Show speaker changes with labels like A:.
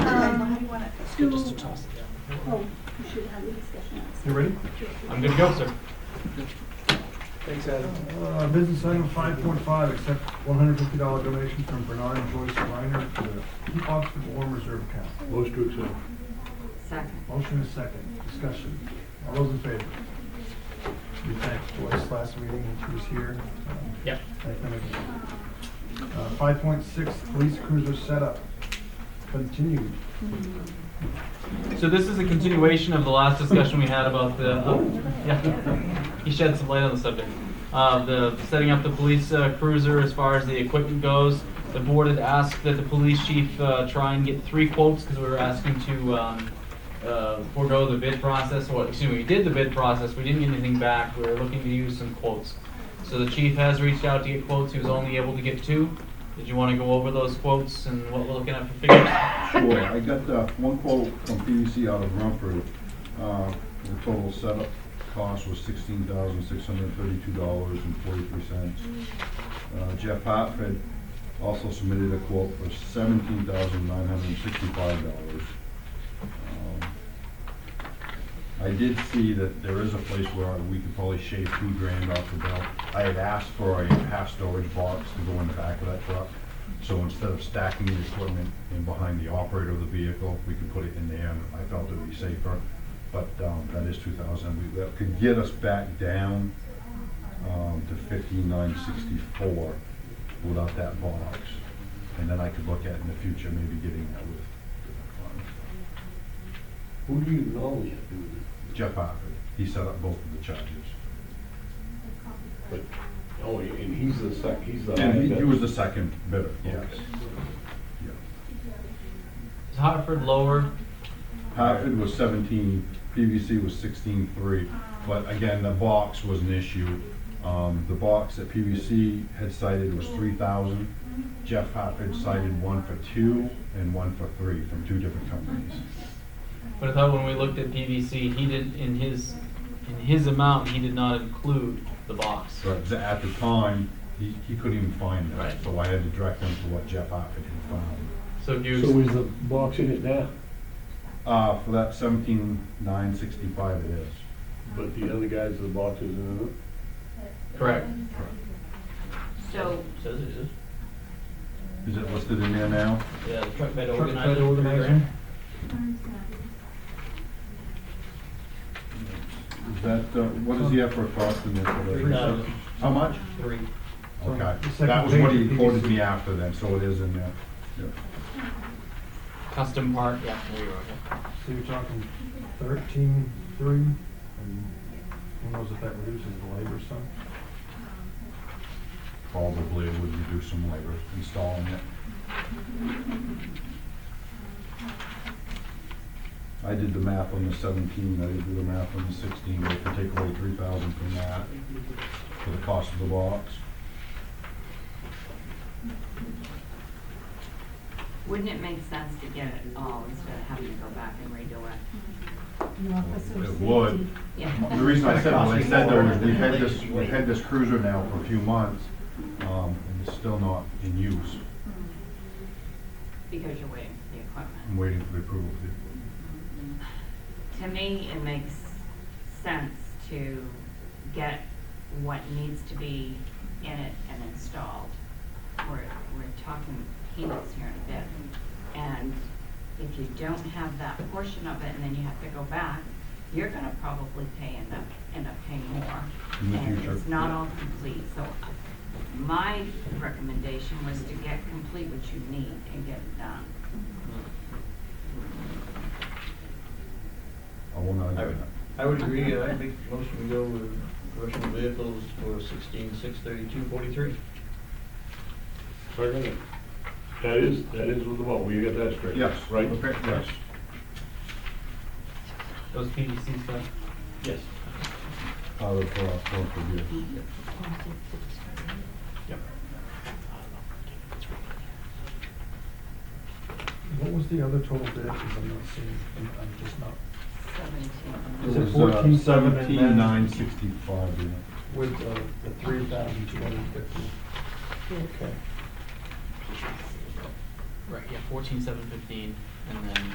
A: not to,
B: Good, just to toss it down.
A: oh, we should have the discussion outside.
C: You ready?
D: I'm good to go, sir.
E: Thanks, Adam.
C: Uh, business item five point five, accept one hundred fifty dollar donation from Bernard and Joyce Reiner to the Oxford War Reserve account.
F: Motion to accept.
G: Second.
C: Motion is second, discussion. All those in favor? We thanked Joyce last meeting, she was here. Um,
D: Yep.
C: thank them again. Uh, five point six, police cruiser setup, continued.
D: So this is a continuation of the last discussion we had about the, oh, yeah, he shed some light on the subject. Uh, the setting up the police uh, cruiser as far as the equipment goes. The board had asked that the police chief uh, try and get three quotes because we were asking to um, uh, forego the bid process, or excuse me, we did the bid process, we didn't get anything back, we were looking to use some quotes. So the chief has reached out to get quotes, he was only able to get two. Did you want to go over those quotes and what we're looking at for figures?
F: Sure, I got uh, one quote from PVC out of Rumford. Uh, The total setup cost was sixteen thousand six hundred and thirty-two dollars and forty-three cents. Uh, Jeff Hartford also submitted a quote for seventeen thousand nine hundred and sixty-five dollars. Um, I did see that there is a place where we could probably shave two grand off the bill. I had asked for a half-storage box to go in the back of that truck. So instead of stacking the equipment in behind the operator of the vehicle, we could put it in there, and I felt it'd be safer. But um, that is two thousand, that could get us back down um, to fifty-nine sixty-four without that box. And then I could look at in the future, maybe getting that with different funds.
H: Who do you know is doing it?
F: Jeff Hartford, he set up both of the charges.
H: Oh, and he's the sec, he's the.
F: And he- he was the second bidder, yes.
D: Is Hartford lower?
F: Hartford was seventeen, PVC was sixteen-three, but again, the box was an issue. Um, the box that PVC had cited was three thousand. Jeff Hartford cited one for two and one for three from two different companies.
D: But I thought when we looked at PVC, he did in his in his amount he did not include the box.
F: But th- at the time, he, he couldn't even find that,
D: Right.
F: so I had to direct him to what Jeff Hartford had found.
D: So if you
H: So is the box in it now?
F: Uh, for that seventeen-nine sixty-five it is.
H: But the other guys, the box isn't in it?
D: correct.
G: So,
D: Says it is.
F: Is it listed in there now?
D: Yeah, the truck bed
C: Truck
D: organizer.
C: bed organizer.
F: Is that, uh, what does he have for a cost in there? for the-
D: Three thousand.
F: How much?
D: Three.
C: So,
F: Okay,
C: the second
F: that was what
C: page,
F: he quoted
C: PVC.
F: me after then, so it is in there.
D: Custom part. Yeah. There you are.
C: So you're talking thirteen-three, and who knows if that reduces the labor some?
F: Probably would reduce some labor installing it. I did the math on the seventeen, I didn't do the math on the sixteen, but if you take away three thousand from that, for the cost of the box.
G: wouldn't it make sense to get it all instead of having to go back and redo it?
F: It would. The
G: Yeah.
F: reason I said what I said though is we've had this, we've had this cruiser now for a few months, um, and it's still not in use.
G: Because you're waiting for the
F: I'm
G: equipment.
F: waiting for the approval. of the-
G: To me, it makes sense to get what needs to be in it and installed. We're, we're talking peanuts here in a bit. And if you don't have that portion of it and then you have to go back, you're gonna probably pay, end up, end up paying more.
F: In the future.
G: And it's not all complete, so my recommendation was to get complete what you need and get uh, it done.
F: I will not
E: I
F: do
E: would-
F: that.
E: I would agree, I think most of them go with commercial vehicles for sixteen, six thirty-two, forty-three.
H: Second. That is, that is with the box, we got that straight.
F: Yes.
H: Right?
F: Okay, yes.
D: Those PVC stuff.
E: Yes.
F: Out of, uh, four per year.
C: What was the other total bid, because I'm not seeing, I'm I'm just not,
G: Seventeen.
C: Is it
F: was, uh,
C: 14,700 and then-
F: 17,965, yeah.
C: with uh, the three thousand two hundred and fifty. Okay.
D: Right. Yeah. Fourteen seven fifteen, and then